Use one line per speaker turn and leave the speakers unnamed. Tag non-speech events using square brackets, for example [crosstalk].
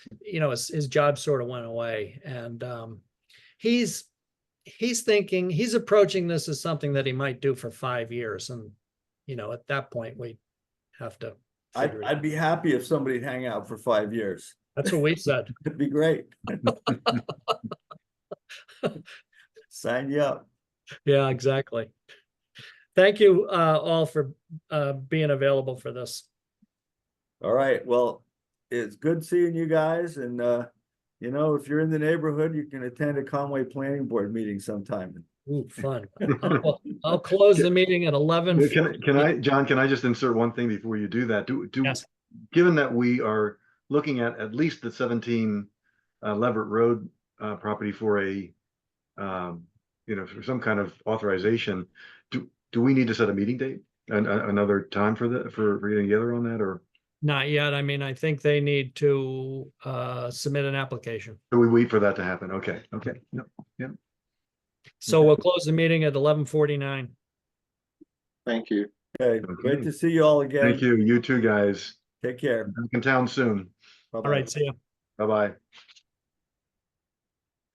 you know, his, his job sort of went away and, um, he's, he's thinking, he's approaching this as something that he might do for five years and, you know, at that point, we have to.
I'd,
figure it
I'd
out.
be happy if somebody'd hang out for five years. [laughs]
That's what we said.
It'd
[laughs]
be great. Sign you up.
Yeah, exactly. Thank you, uh, all for, uh, being available for this.
All right, well, it's good seeing you guys and, uh, you know, if you're in the neighborhood, you can attend a Conway Planning Board meeting sometime.
Ooh, fun. I'll I'll close the meeting at eleven.
Yeah, Can, can I, John, can I just insert one thing before you do that? Do, do,
Yes.
given that we are looking at at least the seventeen uh, Leverett Road uh, property for a, um, you know, for some kind of authorization, do, do we need to set a meeting date? And uh, another time for the, for for getting together on that, or
Not yet. I mean, I think they need to, uh, submit an application.
do we wait for that to happen? Okay, okay. no.
So we'll close the meeting at eleven forty-nine.
Thank you.
Okay, great
Okay.
to see you all again.
Thank you, you two guys.
Take care.
Back in town soon.
All right, see ya.
Bye-bye.